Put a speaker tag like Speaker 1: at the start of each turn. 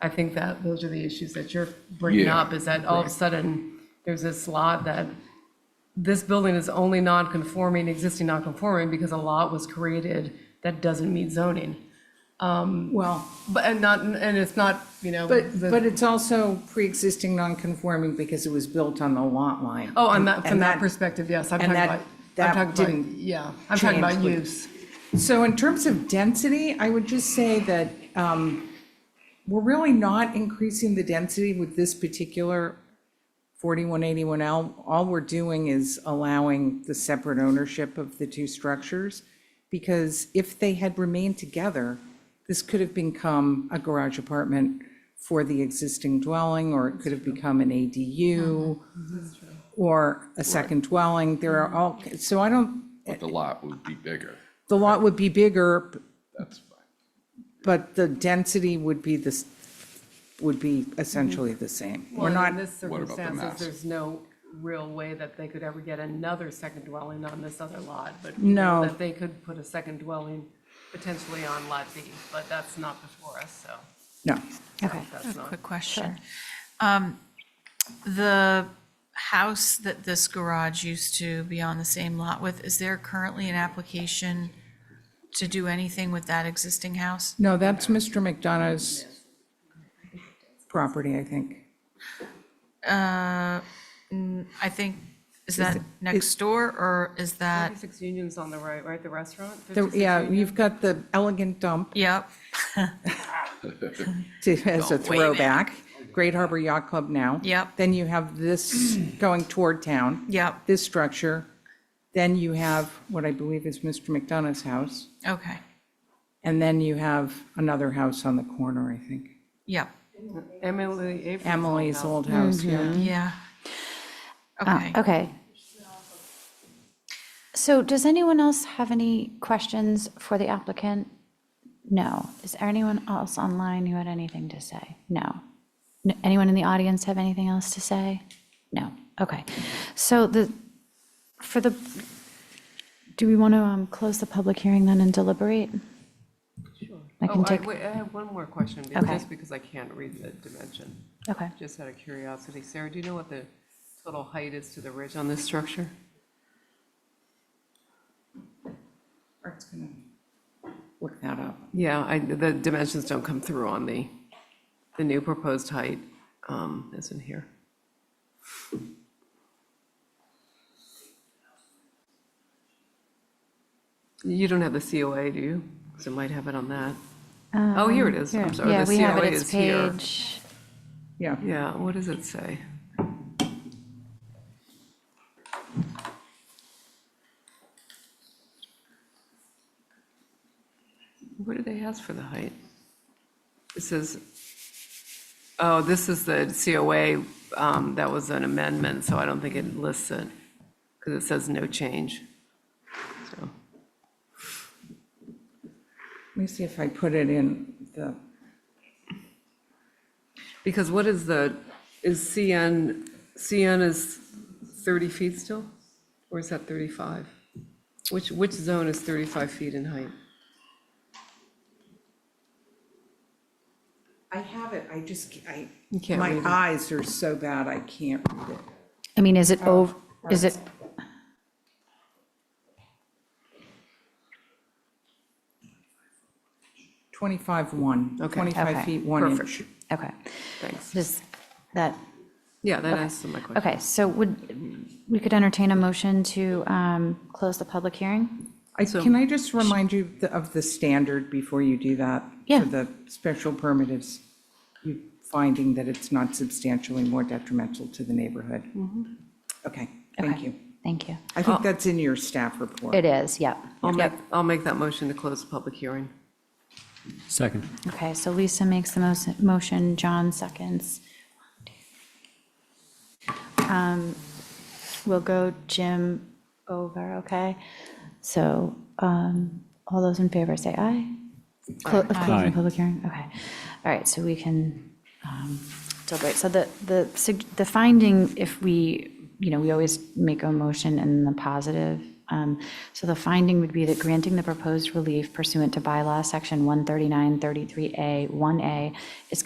Speaker 1: I think that those are the issues that you're bringing
Speaker 2: Yeah,
Speaker 1: up, is that all of a sudden, there's this lot that, this building is only non-conforming, existing non-conforming, because a lot was created that doesn't meet zoning.
Speaker 3: Well,
Speaker 1: But, and not, and it's not, you know,
Speaker 3: but,
Speaker 1: the-
Speaker 3: but it's also pre-existing non-conforming because it was built on the lot line.
Speaker 1: oh, on that, from
Speaker 3: And
Speaker 1: that perspective, yes, I'm
Speaker 3: and
Speaker 1: talking
Speaker 3: that-
Speaker 1: about, I'm
Speaker 3: that
Speaker 1: talking about,
Speaker 3: didn't
Speaker 1: yeah, I'm talking
Speaker 3: change
Speaker 1: about
Speaker 3: with-
Speaker 1: use.
Speaker 3: So in terms of density, I would just say that um, we're really not increasing the density with this particular 4181L. All we're doing is allowing the separate ownership of the two structures, because if they had remained together, this could have become a garage apartment for the existing dwelling, or it could have become an ADU, or a second dwelling. There are all, so I don't,
Speaker 2: but the lot would be bigger.
Speaker 3: the lot would be bigger,
Speaker 2: That's fine.
Speaker 3: But the density would be this, would be essentially the same. We're
Speaker 1: Well, in
Speaker 3: not,
Speaker 1: this
Speaker 2: What about the
Speaker 1: circumstances,
Speaker 2: mass?
Speaker 1: there's no real way that they could ever get another second dwelling on this other lot, but. you know,
Speaker 3: No.
Speaker 1: That they could put a second dwelling potentially on lot B, but that's not before us, so
Speaker 3: no.
Speaker 4: Okay,
Speaker 1: that's not.
Speaker 5: Quick question. Um, The house that this garage used to be on the same lot with, is there currently an application to do anything with that existing house?
Speaker 3: No, that's Mr. McDonough's property, I think.
Speaker 5: I think, is that next door, or is that,
Speaker 1: 56 Union's on the right, right, the restaurant?
Speaker 3: The-
Speaker 1: 56
Speaker 3: Yeah,
Speaker 1: Union?
Speaker 3: you've got the elegant dump
Speaker 5: yep,
Speaker 3: to- as a
Speaker 5: way back.
Speaker 3: throwback, Great Harbor Yacht Club now.
Speaker 5: Yep.
Speaker 3: Then you have this going toward town.
Speaker 5: Yep.
Speaker 3: This structure. Then you have what I believe is Mr. McDonough's house.
Speaker 5: okay,
Speaker 3: And then you have another house on the corner, I think.
Speaker 5: yep,
Speaker 1: Emily April's old
Speaker 3: Emily's
Speaker 1: house.
Speaker 3: old house, yeah.
Speaker 5: yeah.
Speaker 4: Ah,
Speaker 5: Okay,
Speaker 4: okay. So does anyone else have any questions for the applicant? No. Is there anyone else online who had anything to say? No. N- Anyone in the audience have anything else to say? No. Okay. So the, for the, do we want to um, close the public hearing then and deliberate? I
Speaker 1: Oh,
Speaker 4: can
Speaker 1: I,
Speaker 4: take,
Speaker 1: wait, I have one more question, be-
Speaker 4: Okay.
Speaker 1: just because I can't read the dimension.
Speaker 4: okay.
Speaker 1: Just out of curiosity, Sarah, do you know what the total height is to the ridge on this structure?
Speaker 3: Art's gonna look that up.
Speaker 1: Yeah, I, the dimensions don't come through on the, the new proposed height, um, is in here. You don't have the COA, do you? Because it might have it on that. Oh, here it is, I'm sorry,
Speaker 4: Um, Yeah,
Speaker 1: the
Speaker 4: we have
Speaker 1: COA
Speaker 4: it. It's
Speaker 1: is here.
Speaker 4: page,
Speaker 3: Yeah.
Speaker 1: Yeah, what does it say? What do they ask for the height? It says, oh, this is the COA, um, that was an amendment, so I don't think it lists it, because it says no change. So,
Speaker 3: Let me see if I put it in the,
Speaker 1: Because what is the, is CN, CN is 30 feet still? Or is that 35? Which, which zone is 35 feet in height?
Speaker 3: I have it, I just, ca- I,
Speaker 1: You can't
Speaker 3: my
Speaker 1: read it.
Speaker 3: eyes are so bad, I can't read it.
Speaker 4: I mean, is it over, is it?
Speaker 3: Twenty-five, one.
Speaker 1: Okay.
Speaker 3: Twenty-five
Speaker 4: Okay.
Speaker 3: feet, one
Speaker 1: Perfect.
Speaker 3: inch.
Speaker 4: Okay.
Speaker 1: Thanks.
Speaker 4: Does that,
Speaker 1: Yeah, that answers my question.
Speaker 4: okay, so would, we could entertain a motion to um, close the public hearing?
Speaker 3: I,
Speaker 1: So-
Speaker 3: can I just remind you the- of the standard before you do that?
Speaker 4: Yeah.
Speaker 3: For the special permit is you finding that it's not substantially more detrimental to the neighborhood. Okay, thank
Speaker 4: Okay,
Speaker 3: you.
Speaker 4: Thank you.
Speaker 3: I think that's in your staff report.
Speaker 4: It is, yep.
Speaker 1: I'll make, I'll make that motion to close the public hearing.
Speaker 6: Second.
Speaker 4: Okay, so Lisa makes the most, motion, John seconds. Um, We'll go Jim over, okay? So um, all those in favor say aye. Clo- of Closing
Speaker 6: Aye.
Speaker 4: the public hearing, okay. All right, so we can um, deliberate. So the, the, sug- the finding, if we, you know, we always make a motion in the positive. um, So the finding would be that granting the proposed relief pursuant to bylaw section 13933A, 1A is